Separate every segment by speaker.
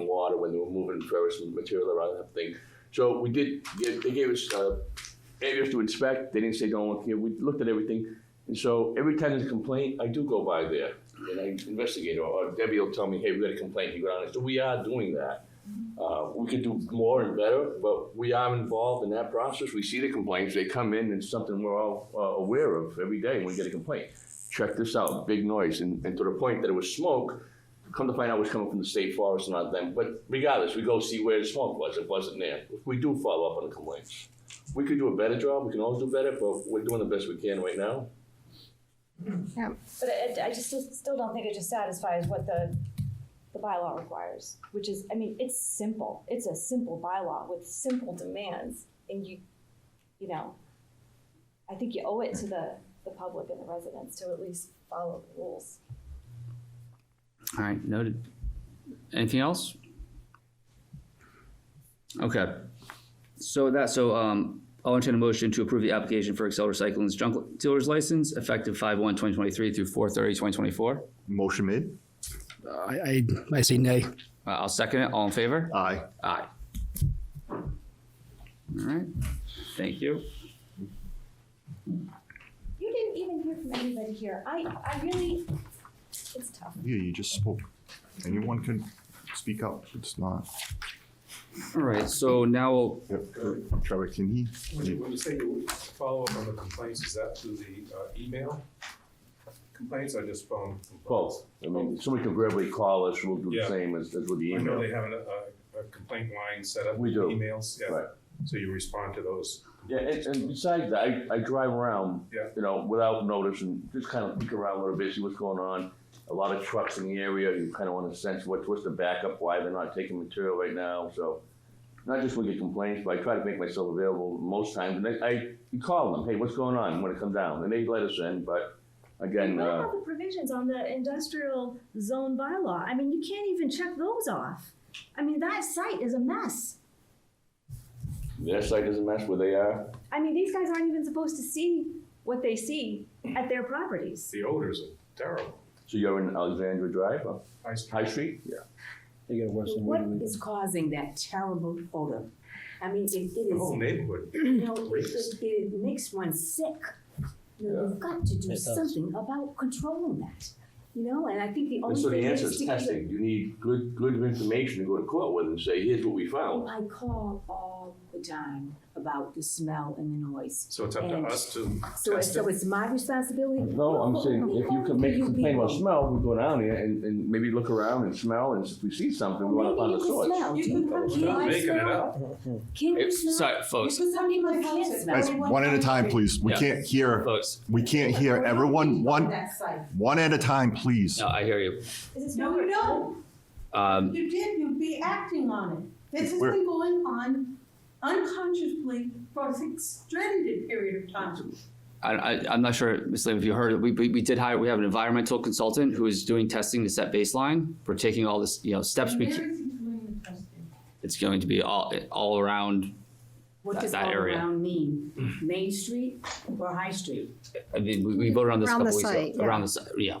Speaker 1: and they were moving various material around that thing. So we did, give- they gave us uh, areas to inspect, they didn't say don't look here, we looked at everything. And so every time there's a complaint, I do go by there and I investigate, or or Debbie will tell me, hey, we got a complaint, you go down there. So we are doing that. Uh, We could do more and better, but we are involved in that process. We see the complaints, they come in, and it's something we're all uh, aware of every day when we get a complaint. Check this out, big noise, and, and to the point that it was smoke, come to find out it was coming from the state forest and not them. But regardless, we go see where the smoke was, it wasn't there. We do follow up on the complaints. We could do a better job, we can always do better, but we're doing the best we can right now.
Speaker 2: But I, I just still don't think it just satisfies what the, the bylaw requires, which is, I mean, it's simple. It's a simple bylaw with simple demands and you, you know, I think you owe it to the, the public and the residents to at least follow the rules.
Speaker 3: All right, noted. Anything else? Okay. So with that, so um, I'll entertain a motion to approve the application for Excel Recycling's junk dealer's license effective five one twenty twenty-three through four thirty twenty twenty-four.
Speaker 4: Motion made.
Speaker 5: I, I, I say nay.
Speaker 3: Uh, I'll second it. All in favor?
Speaker 4: Aye.
Speaker 3: Aye. All right, thank you.
Speaker 2: You didn't even hear from anybody here. I, I really, it's tough.
Speaker 4: Yeah, you just spoke. Anyone can speak up. It's not.
Speaker 3: All right, so now we'll
Speaker 4: Trevor, can he?
Speaker 6: When you, when you say you follow up on the complaints, is that through the uh, email complaints or just phone? complaints?
Speaker 1: Both. I mean, somebody can verbally call us, we'll do the
Speaker 6: Yeah.
Speaker 1: same as, as with the
Speaker 6: I know
Speaker 1: email.
Speaker 6: they have uh, a, a complaint line set up.
Speaker 1: We do.
Speaker 6: Emails, yeah.
Speaker 1: Right.
Speaker 6: So you respond to those.
Speaker 1: Yeah, and, and besides that, I, I drive around,
Speaker 6: Yeah.
Speaker 1: you know, without notice and just kind of peek around a little bit, see what's going on. A lot of trucks in the area, you kind of want to sense what, what's the backup, why they're not taking material right now, so. Not just when you get complaints, but I try to make myself available most times, and I, I you call them, hey, what's going on, when it come down, and they let us in, but again,
Speaker 7: What
Speaker 1: uh,
Speaker 7: about the provisions on the industrial zone bylaw? I mean, you can't even check those off. I mean, that site is a mess.
Speaker 1: their site doesn't mess where they are.
Speaker 7: I mean, these guys aren't even supposed to see what they see at their properties.
Speaker 6: The odors are terrible.
Speaker 1: So you're in Alexandria Drive, uh,
Speaker 6: I
Speaker 1: High Street? Yeah.
Speaker 5: They gotta work some
Speaker 8: What
Speaker 5: way to it.
Speaker 8: is causing that terrible odor? I mean, it, it
Speaker 6: The whole
Speaker 1: Oh,
Speaker 8: is,
Speaker 6: neighborhood.
Speaker 8: you know, it,
Speaker 6: Racist.
Speaker 8: it- it makes one sick. You know, you've got to do
Speaker 5: It does.
Speaker 8: something about controlling that, you know, and I think the
Speaker 1: And
Speaker 8: only
Speaker 1: so
Speaker 2: Oh,
Speaker 1: the
Speaker 8: thing
Speaker 1: answer
Speaker 8: is
Speaker 1: is
Speaker 8: to keep it-
Speaker 1: testing. You need good, good information to go to court with and say, here's what we
Speaker 8: Oh,
Speaker 1: found.
Speaker 8: I call all the time about the smell and the noise.
Speaker 6: So it's up to
Speaker 8: And
Speaker 6: us to
Speaker 8: So, it's-
Speaker 6: test
Speaker 8: so
Speaker 6: it.
Speaker 8: it's my responsibility?
Speaker 1: No, I'm
Speaker 8: Well,
Speaker 1: saying,
Speaker 8: we
Speaker 1: if you
Speaker 8: all
Speaker 1: can make a
Speaker 8: you
Speaker 1: complaint about
Speaker 8: people.
Speaker 1: smell, we go down here and, and maybe look around and smell, and if we see something, we want to find the
Speaker 8: Maybe you can
Speaker 1: source.
Speaker 8: smell. Do you
Speaker 6: Oh,
Speaker 8: have-
Speaker 6: it's
Speaker 8: do you
Speaker 6: not
Speaker 8: like
Speaker 6: making it
Speaker 8: smell?
Speaker 6: up.
Speaker 8: Can you smell?
Speaker 3: Sorry, folks,
Speaker 8: Because some people can't smell.
Speaker 4: Guys, one at a time, please. We
Speaker 3: Yeah.
Speaker 4: can't hear,
Speaker 3: folks.
Speaker 4: we can't hear everyone. One,
Speaker 8: That side.
Speaker 4: one at a time, please.
Speaker 3: No, I hear you.
Speaker 2: Is it
Speaker 9: No,
Speaker 2: smaller?
Speaker 9: you don't.
Speaker 3: Um,
Speaker 9: You did, you'd be acting on it. This has
Speaker 4: We're-
Speaker 9: been going on unconsciously for an extended period of time.
Speaker 3: I, I, I'm not sure, Ms. Lim, if you heard, we, we, we did hire, we have an environmental consultant who is doing testing to set baseline. We're taking all this, you know, steps
Speaker 9: And
Speaker 3: we,
Speaker 9: where is
Speaker 3: ca-
Speaker 9: he doing the testing?
Speaker 3: it's going to be all, all around,
Speaker 8: What
Speaker 3: That-
Speaker 8: does
Speaker 3: that
Speaker 8: all
Speaker 3: area.
Speaker 8: around mean? Main Street or High Street?
Speaker 3: I mean, we, we voted on this a
Speaker 10: Around
Speaker 3: couple
Speaker 10: the
Speaker 3: weeks ago.
Speaker 10: site, yeah.
Speaker 3: Around the site, yeah.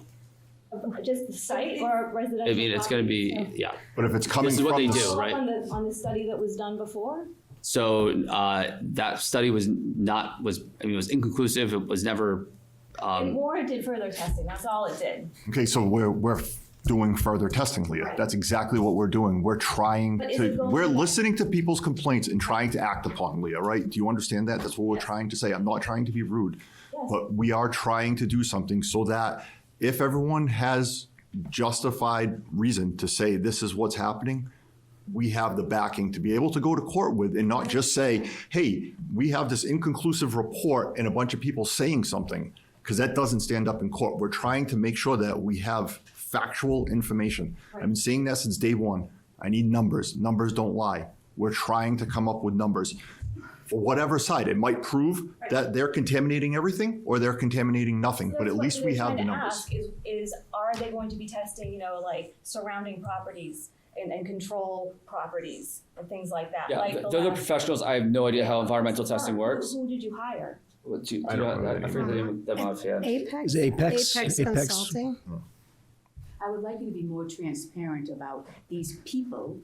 Speaker 2: Just the site or residential?
Speaker 3: I mean, it's gonna
Speaker 2: properties?
Speaker 3: be, yeah.
Speaker 4: But if it's coming
Speaker 3: This is
Speaker 4: from
Speaker 3: what they
Speaker 4: the
Speaker 3: do,
Speaker 4: s-
Speaker 3: right?
Speaker 2: On the, on the study that was done before?
Speaker 3: So, uh, that study was not, was, I mean, it was inconclusive. It was never,
Speaker 2: It
Speaker 3: um,
Speaker 2: warranted further testing, that's all it did.
Speaker 4: Okay, so we're, we're doing further testing, Leah. That's exactly what we're doing. We're trying
Speaker 2: But is
Speaker 4: to,
Speaker 2: it going
Speaker 4: we're
Speaker 2: to-
Speaker 4: listening to people's complaints and trying to act upon, Leah, right? Do you understand that? That's what we're trying to say. I'm not trying to be rude. But we are trying to do something so that if everyone has justified reason to say this is what's happening, we have the backing to be able to go to court with and not just say, hey, we have this inconclusive report and a bunch of people saying something, because that doesn't stand up in court. We're trying to make sure that we have factual information. I've been saying that since day one. I need numbers. Numbers don't lie. We're trying to come up with numbers for whatever side. It might prove that they're contaminating everything or they're contaminating nothing, but
Speaker 2: That's
Speaker 4: at
Speaker 2: what
Speaker 4: least
Speaker 2: we
Speaker 4: we
Speaker 2: were
Speaker 4: have
Speaker 2: trying
Speaker 4: the
Speaker 2: to
Speaker 4: numbers.
Speaker 2: ask Is, is are they going to be testing, you know, like surrounding properties and, and control properties and things like that?
Speaker 3: yeah,
Speaker 2: like
Speaker 3: th-
Speaker 2: the
Speaker 3: those are
Speaker 2: last-
Speaker 3: professionals. I have no idea how environmental testing
Speaker 2: Who-
Speaker 3: works.
Speaker 2: Who did you hire?
Speaker 3: What do you-
Speaker 4: I
Speaker 3: do you
Speaker 4: don't
Speaker 3: know-
Speaker 4: know
Speaker 3: I- I forget the name of that mod, yeah.
Speaker 10: Apex?
Speaker 5: Is it Apex?
Speaker 10: Apex
Speaker 5: Apex.
Speaker 10: Consulting?
Speaker 8: I would like you to be more transparent about these people